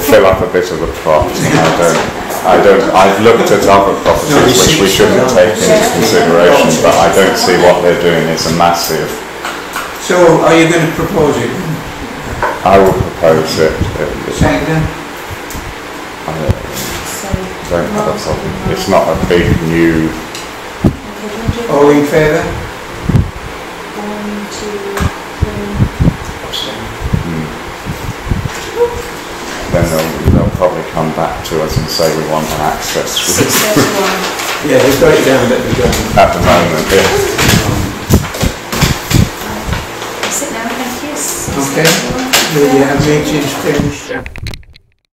fill up a bit of a plot. I don't, I don't, I've looked at other properties which we shouldn't take into consideration, but I don't see what they're doing is a massive. So are you going to propose it? I will propose it. it- it- Second? I don't have a problem. It's not a big new, All in favour? One, two, three. mm. then they'll, they'll probably come back to us and say we want an access. Six, there's one. Yeah, they've got it down, let me go. At the moment, yeah. Sit down, thank you. Six, Okay. there's one. The uh, meeting's finished.